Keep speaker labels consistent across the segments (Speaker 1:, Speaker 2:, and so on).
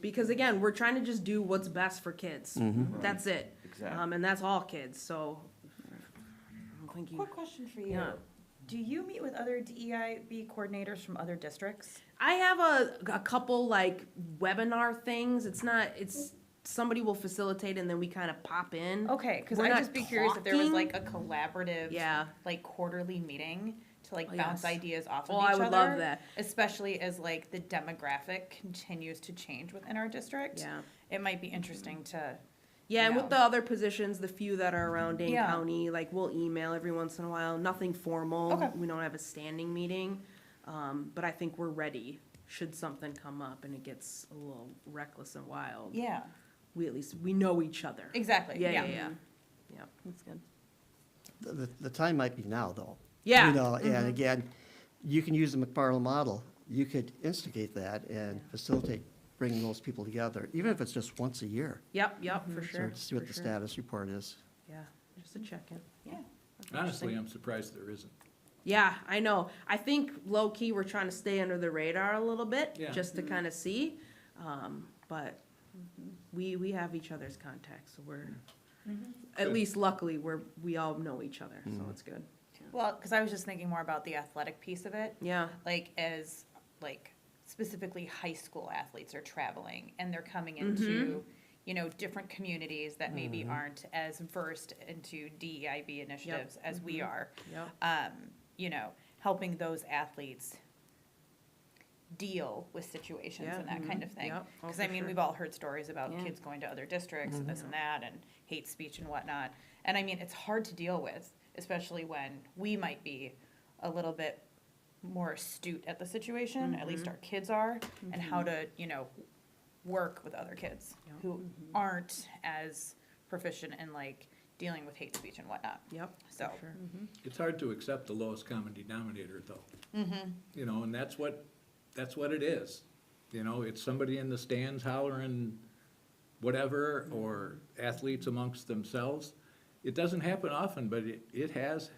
Speaker 1: Because again, we're trying to just do what's best for kids. That's it.
Speaker 2: Exactly.
Speaker 1: Um, and that's all kids, so. I don't think you-
Speaker 3: Quick question for you.
Speaker 1: Yeah.
Speaker 3: Do you meet with other DEIB coordinators from other districts?
Speaker 1: I have a, a couple like webinar things. It's not, it's, somebody will facilitate and then we kind of pop in.
Speaker 3: Okay, because
Speaker 1: We're
Speaker 3: I'd
Speaker 1: not
Speaker 3: just be curious if there was
Speaker 1: talking.
Speaker 3: like a collaborative,
Speaker 1: Yeah.
Speaker 3: like quarterly meeting to like
Speaker 1: Oh,
Speaker 3: bounce
Speaker 1: yes.
Speaker 3: ideas off of
Speaker 1: Oh,
Speaker 3: each
Speaker 1: I
Speaker 3: other.
Speaker 1: would love that.
Speaker 3: Especially as like the demographic continues to change within our district.
Speaker 1: Yeah.
Speaker 3: It might be interesting to,
Speaker 1: Yeah, and with
Speaker 3: No.
Speaker 1: the other positions, the few that are around Dane
Speaker 3: Yeah.
Speaker 1: County, like we'll email every once in a while. Nothing formal.
Speaker 3: Okay.
Speaker 1: We don't have a standing meeting, um, but I think we're ready. Should something come up and it gets a little reckless and wild,
Speaker 3: yeah,
Speaker 1: we at least we know each other.
Speaker 3: exactly,
Speaker 1: Yeah, yeah,
Speaker 3: yeah.
Speaker 1: yeah. Yeah, that's good.
Speaker 4: The- The, the time might be now, though.
Speaker 1: Yeah. Mm-hmm.
Speaker 4: You know, and again, you can use the McFarland model. You could instigate that and facilitate bringing those people together, even if it's just once a year.
Speaker 1: Yep, yep, for
Speaker 4: Mm-hmm. So
Speaker 1: sure.
Speaker 4: to see what
Speaker 1: for
Speaker 4: the
Speaker 1: sure.
Speaker 4: status report is.
Speaker 1: Yeah, just a check-in.
Speaker 3: Yeah.
Speaker 5: Honestly, I'm surprised there isn't.
Speaker 1: Yeah, I know. I think low key we're trying to stay under the radar a little bit
Speaker 5: Yeah.
Speaker 1: just
Speaker 3: Mm-hmm.
Speaker 1: to kind of see. Um, but we we have each other's contacts, so we're at
Speaker 3: Mm-hmm.
Speaker 5: Good.
Speaker 1: least luckily we're we all know each other, so
Speaker 4: Mm-hmm.
Speaker 1: it's good.
Speaker 3: Well, because I was just thinking more about the athletic piece of it.
Speaker 1: Yeah.
Speaker 3: like as like specifically high school athletes are traveling and they're coming
Speaker 1: Mm-hmm.
Speaker 3: into you know different communities that maybe aren't as versed into DEIB initiatives as we
Speaker 1: Mm-hmm.
Speaker 3: are
Speaker 1: Yep.
Speaker 3: um, you know helping those athletes deal with situations
Speaker 1: Yeah,
Speaker 3: and that kind of thing
Speaker 1: Yep. Oh,
Speaker 3: because
Speaker 1: for
Speaker 3: I mean
Speaker 1: sure.
Speaker 3: we've all heard stories about
Speaker 1: Yeah. Mm-hmm.
Speaker 3: kids going to other districts and this and that and hate speech and whatnot and I mean it's hard to deal with especially when we might be a little bit more astute at the situation, at
Speaker 1: Mm-hmm.
Speaker 3: least our kids are, and how to, you know, work with other kids
Speaker 1: Yeah. Mm-hmm.
Speaker 3: who aren't as proficient in like dealing with hate speech and whatnot.
Speaker 1: Yep.
Speaker 3: So,
Speaker 1: for sure.
Speaker 5: It's hard to accept the lowest common denominator, though.
Speaker 1: Mm-hmm.
Speaker 5: You know, and that's what, that's what it is. You know, it's somebody in the stands hollering whatever, or athletes amongst themselves. It doesn't happen often, but it, it has,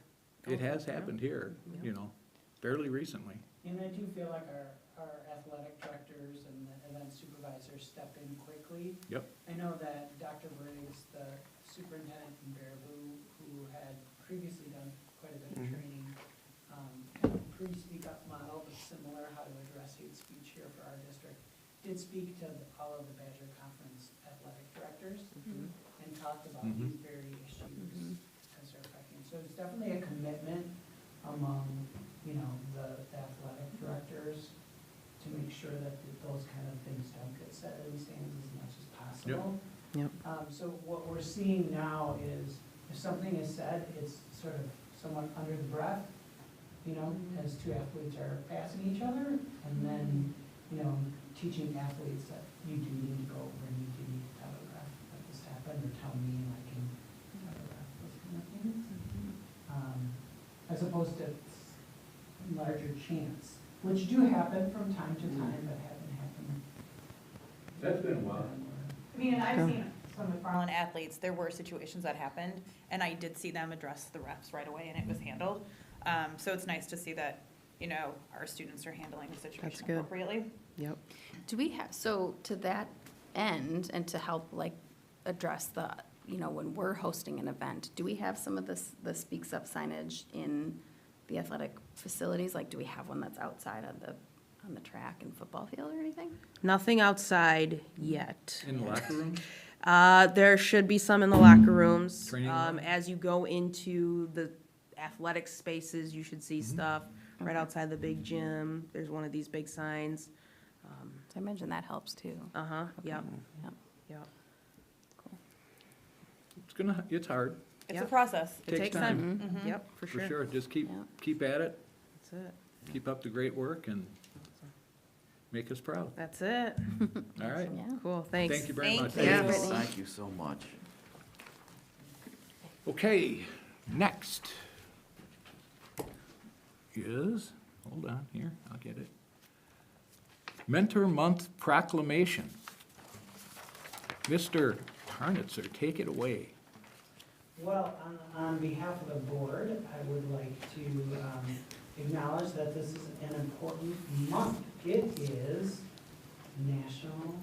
Speaker 5: it
Speaker 1: Oh,
Speaker 5: has happened here, you know, fairly recently.
Speaker 6: And I do feel like our, our athletic directors and the event supervisors step in quickly.
Speaker 5: Yep.
Speaker 6: I know that Dr. Briggs, the superintendent in Baraboo, who had previously done quite a bit of training, um, kind of pre-speak up model, but similar, how to address hate speech here for our district, did speak to the- all of the Badger Conference athletic directors
Speaker 1: Mm-hmm.
Speaker 3: Mm-hmm.
Speaker 6: and talked about
Speaker 5: Mhm.
Speaker 6: these very issues as they're affecting. So it's definitely a commitment among, you know, the the athletic directors to make sure that th- those kind of things don't get said in the stands as much as possible.
Speaker 1: Yep.
Speaker 6: Um, so what we're seeing now is if something is said, it's sort of somewhat under the breath, you know, as two athletes are passing each other, and then, you know, teaching athletes that you do need to go over and you do need to tell the ref that this happened, or tell me and I can tell the ref this kind of thing.
Speaker 1: Mm-hmm.
Speaker 6: Um, As opposed to s- larger chants, which do happen from time to time, but haven't happened.
Speaker 5: Mm. That's been a while.
Speaker 3: I mean, and I've seen some McFarland athletes, there were situations that happened, and I did see them address the reps right away, and it was handled. Um, so it's nice to see that, you know, our students are handling the situation
Speaker 1: good.
Speaker 3: appropriately.
Speaker 1: Yep.
Speaker 7: Do we have, so to that end, and to help like address the, you know, when we're hosting an event, do we have some of this, the speaks up signage in the athletic facilities? Like, do we have one that's outside on the, on the track and football field or anything?
Speaker 1: Nothing outside yet.
Speaker 5: In the locker room,
Speaker 1: Uh, there should be some in the locker rooms.
Speaker 5: Training
Speaker 1: Um,
Speaker 5: room.
Speaker 1: as you go into the athletic spaces, you should see
Speaker 5: Mm-hmm.
Speaker 1: stuff right outside the big gym. There's one of these big signs.
Speaker 7: So I imagine that helps too.
Speaker 1: Uh huh. Yep.
Speaker 7: Yep.
Speaker 1: Yep.
Speaker 5: it's gonna, it's hard,
Speaker 3: It's a
Speaker 1: Yep.
Speaker 3: process. Mm-hmm.
Speaker 1: It takes time. Yep, for
Speaker 5: for
Speaker 1: sure.
Speaker 5: sure. Just keep,
Speaker 7: Yeah.
Speaker 5: keep at it,
Speaker 1: That's it.
Speaker 5: keep up the great work and make us proud,
Speaker 1: That's it.
Speaker 5: all right?
Speaker 7: Yeah.
Speaker 1: Cool, thanks.
Speaker 5: Thank you very
Speaker 3: Thank
Speaker 5: much.
Speaker 3: you. Yeah.
Speaker 7: Brittany.
Speaker 2: Thank you so much.
Speaker 5: Okay, next is, hold on here, I'll get it. Mentor Month Proclamation. Mr. Tarnitzer, take it away.
Speaker 6: Well, on, on behalf of the board, I would like to um, acknowledge that this is an important month. It is National